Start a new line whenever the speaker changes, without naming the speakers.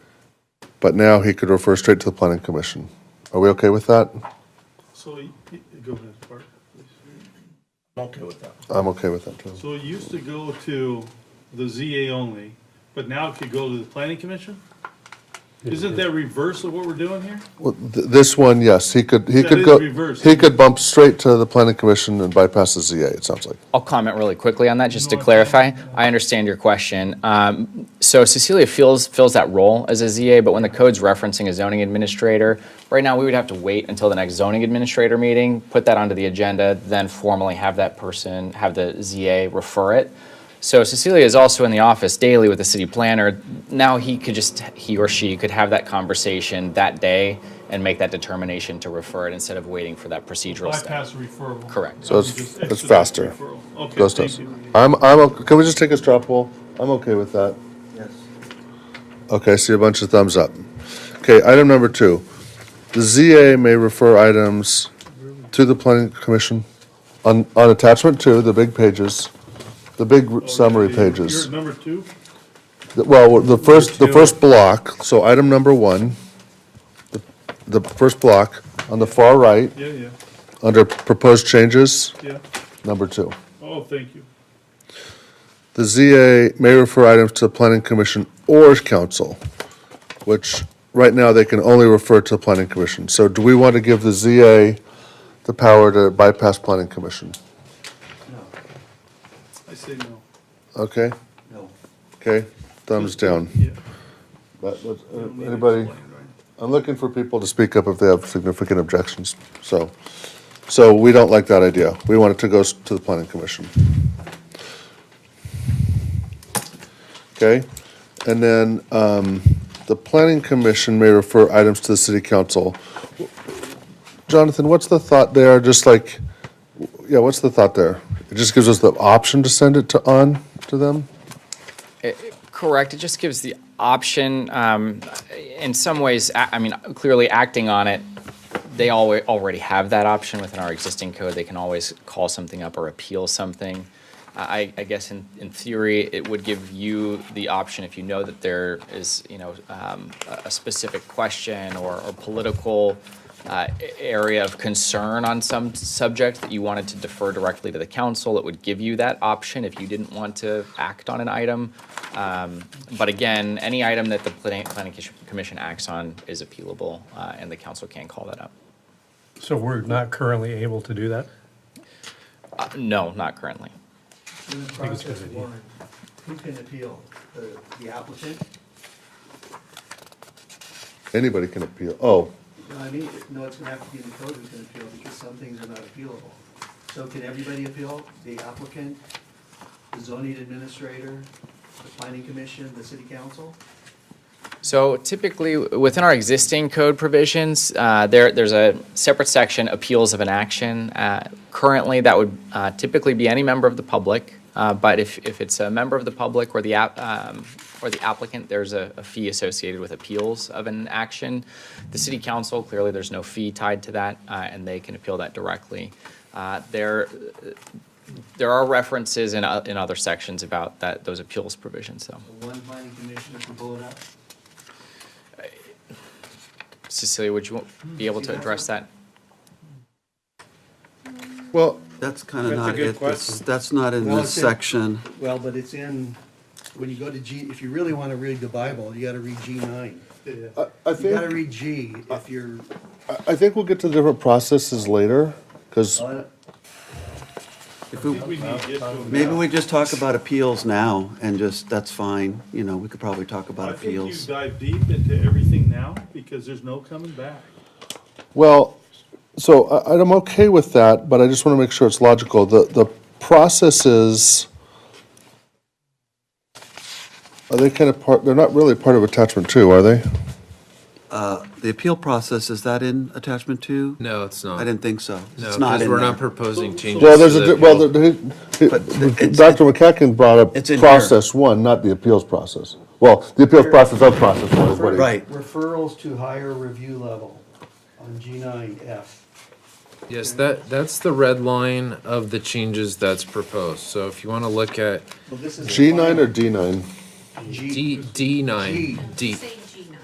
But now he could refer straight to the planning commission. Are we okay with that?
So, y- y- go ahead, Bart, please.
I'm okay with that.
I'm okay with that, too.
So it used to go to the ZA only, but now it could go to the planning commission? Isn't that reverse of what we're doing here?
Well, th- This one, yes, he could, he
That
could
is
go,
reversed.
he could bump straight to the planning commission and bypass the ZA, it sounds like.
I'll comment really quickly on that, just to
No, I-
clarify. I understand your question. Um, So Cecilia fills, fills that role as a ZA, but when the code's referencing a zoning administrator, right now, we would have to wait until the next zoning administrator meeting, put that onto the agenda, then formally have that person, have the ZA refer it. So Cecilia is also in the office daily with the city planner. Now he could just, he or she could have that conversation that day and make that determination to refer it instead of waiting for that procedural step.
Bypass referral.
Correct.
So it's-
That would just
it's
expedite
faster.
referral. Okay,
Goes to us.
thank you.
I'm, I'm, o- can we just take a straw poll? I'm okay with that.
Yes.
Okay, I see a bunch of thumbs up. Okay, item number two. The ZA may refer items to the planning commission on, on attachment two, the big pages, the big summary
Okay, Oh, you're-
pages.
You're at number two?
The- Well, the first, the
two.
first block, so item number one, the, the first block on the far right,
Yeah, yeah,
under proposed changes,
yeah.
number two.
Oh, thank you.
The ZA may refer items to the planning commission or council, which, right now, they can only refer to the planning commission. So do we want to give the ZA the power to bypass planning commission?
No,
I say no.
Okay,
no.
okay, thumbs down.
Yeah.
That was-
You don't need to
Anybody?
explain, right?
I'm looking for people to speak up if they have significant objections, so, so we don't like that idea. We want it to go s- to the planning commission. Okay, and then, um, the planning commission may refer items to the city council. Jonathan, what's the thought there, just like, yeah, what's the thought there? It just gives us the option to send it to, on to them?
Correct. It just gives the option, um, in some ways, a- I mean, clearly acting on it, they alwa- already have that option within our existing code. They can always call something up or appeal something. I, I guess in, in theory, it would give you the option if you know that there is, you know, um, a a specific question or, or political uh, a- area of concern on some subject that you wanted to defer directly to the council, it would give you that option if you didn't want to act on an item. Um, But again, any item that the planning, planning Commission- commission acts on is appealable, uh, and the council can call that up.
So we're not currently able to do that?
Uh, No, not currently.
In the
think it's a
process
good idea.
one, who can appeal? The the applicant?
Anybody can appeal, oh,
No, I mean, no, it's gonna have to be the code who can appeal because some things are not appealable. So can everybody appeal? The applicant, the zoning administrator, the planning commission, the city council?
So typically, within our existing code provisions, uh, there, there's a separate section, appeals of an action. Uh, Currently, that would uh, typically be any member of the public, uh, but if, if it's a member of the public or the app, um, or the applicant, there's a, a fee associated with appeals of an action. The city council, clearly, there's no fee tied to that, uh, and they can appeal that directly. Uh, There, there are references in, o- in other sections about that, those appeals provisions, though.
The One planning commissioner can pull it up?
Cecilia, would you be able to address that?
well,
That's kind of
That's a
not
good
it. That's,
question.
that's not in
Well,
this
it's in-
section.
Well, but it's in, when you go to G, if you really wanna read the Bible, you gotta read G nine.
I, I
You
think.
gotta read G if you're,
I- I think we'll get to different processes later, because,
If
I think we
we,
need to get to them
maybe
now.
we just talk about appeals now and just, that's fine. You know, we could probably talk about
I think you
appeals.
dive deep into everything now because there's no coming back.
well, so I, I'm okay with that, but I just want to make sure it's logical. The, the processes are they kind of part, they're not really part of attachment two, are they?
The appeal process, is that in attachment two?
No, it's not.
I didn't think so.
No,
It's not
because
in
we're
there.
not proposing changes.
Well, there's
to
a,
the
di- well,
appeal.
the- he-
But it's-
Dr. McCacken brought
It's
up
in here.
process one, not the appeals process. Well, the appeals process of process one is what he.
Right.
Referrals to higher review level on G nine F.
Yes, that, that's the red line of the changes that's proposed. So if you want to look at
Well, this is.
G nine or D nine?
G,
D, D nine, D,